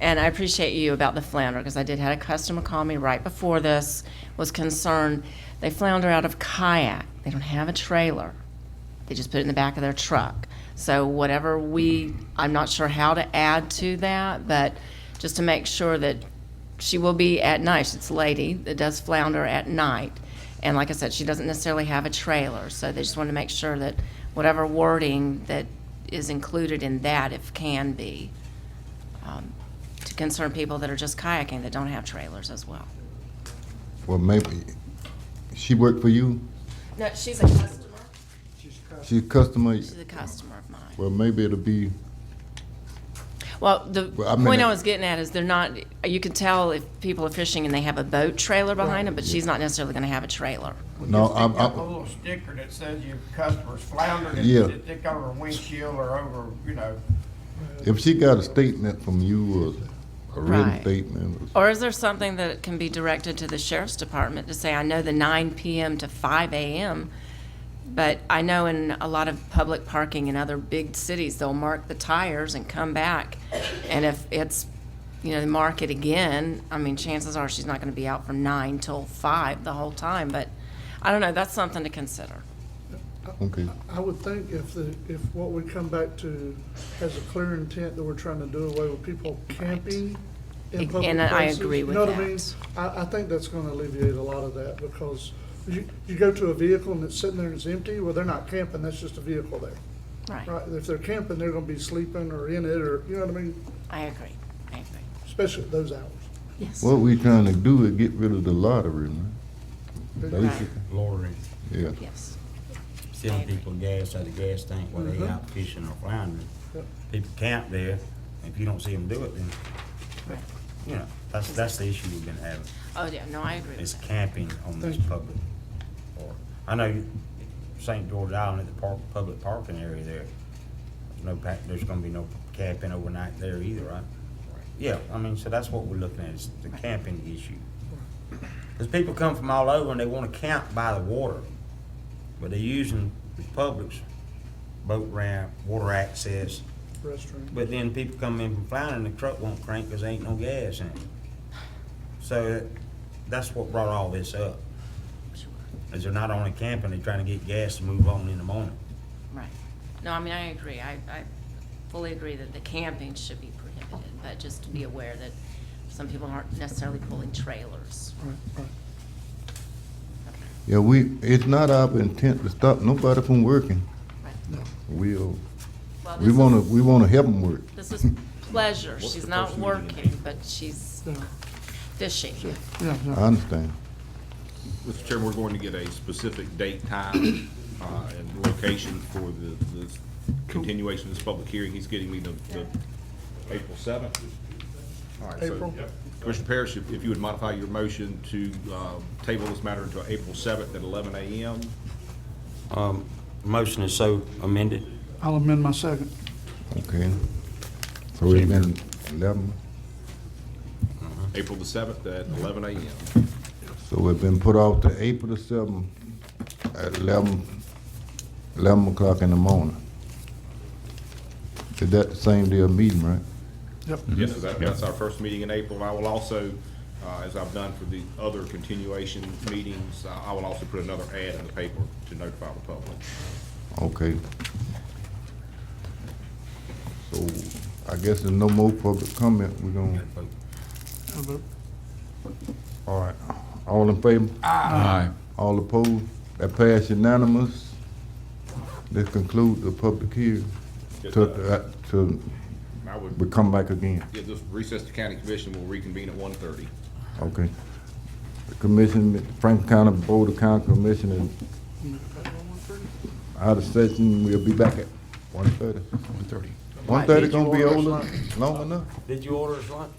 And I appreciate you about the flounder, because I did had a customer call me right before this, was concerned. They flounder out of kayak. They don't have a trailer. They just put it in the back of their truck. So whatever we, I'm not sure how to add to that, but just to make sure that she will be at night. It's a lady that does flounder at night. And like I said, she doesn't necessarily have a trailer, so they just want to make sure that whatever wording that is included in that, if can be, um, to concern people that are just kayaking that don't have trailers as well. Well, maybe, she worked for you? No, she's a customer. She's a customer? She's a customer of mine. Well, maybe it'll be, Well, the Well, I mean point I it- was getting at is they're not, you can tell if people are fishing and they have a boat trailer behind them, but she's not necessarily going to have a trailer. no, Just I'm, Stick up a I'm, little sticker that says your customer's floundered and Yeah. you stick over a windshield or over, you know, if she got a statement from you or a written Right. statement. or- Or is there something that can be directed to the sheriff's department to say, I know the nine PM to five AM, but I know in a lot of public parking in other big cities, they'll mark the tires and come back. And if it's, you know, they mark it again, I mean, chances are she's not gonna be out from nine till five the whole time, but I don't know, that's something to consider. Okay, I would think if the, if what we come back to has a clear intent that we're trying to do away with people camping in And public places. I agree with You know what I that. mean? I, I think that's gonna alleviate a lot of that because you, you go to a vehicle and it's sitting there and it's empty, well, they're not camping, that's just a vehicle there. Right, if they're camping, they're gonna be sleeping or in it or, you know what I mean, I agree, I agree, especially at those hours. yes. what we trying to do is get rid of the lottery, man. Basically, lorry, yeah. Yes, selling people gas at the gas tank while they out fishing or floundering. Yep. People camp there, if you don't see them do it, then, right. you know, that's, that's the issue we've been having, Oh, yeah, no, I agree with is that. camping on this Thank you. public. or- I know you- St. George Island at the park, public parking area there, there's no pack, there's gonna be no camping overnight there either, right? Yeah, I mean, so that's what we're looking at, is the camping issue. Cause people come from all over and they wanna camp by the water, but they're using the public's boat ramp, water access, Restaurant. but then people come in from Flounder and the truck won't crank because there ain't no gas in it. So that's what brought all this up. Is they're not only camping, they're trying to get gas to move on in the morning. Right. No, I mean, I agree. I, I fully agree that the camping should be prohibited, but just to be aware that some people aren't necessarily pulling trailers. Right, right. Yeah, we, it's not our intent to stop nobody from working. Right. We'll, Well, we this is- wanna, we wanna help them work. This is pleasure. She's not working, but she's Yeah, fishing. yeah, yeah. I understand. Mr. Chairman, we're going to get a specific date, time, uh, and location for the, the continuation of this public hearing. He's getting me the, the April seventh. All right, so April. Commissioner Parrish, if if you would modify your motion to, uh, table this matter until April seventh at eleven AM. Motion is so amended. I'll amend my second. Okay. So it's been eleven, April the seventh at eleven AM. so it's been put off to April the seventh at eleven, eleven o'clock in the morning. Is that the same day of meeting, right? Yep. Yes, so that- that's our first meeting in April. I will also, uh, as I've done for the other continuation meetings, uh, I I will also put another ad in the paper to notify the public. Okay. So I guess there's no more public comment. We're gonna, I'll vote. all right. All in favor? Aye. All opposed? That pass unanimous. This conclude the public hearing. Yes, To, sir. uh, to, I would we come back again, Yeah, just recess the county commission, we'll reconvene at one thirty. okay? The commission, Franklin County Board of County Commission is out of session. We'll be back at one thirty. One thirty. One thirty gonna be over, long enough? Did you order us lunch?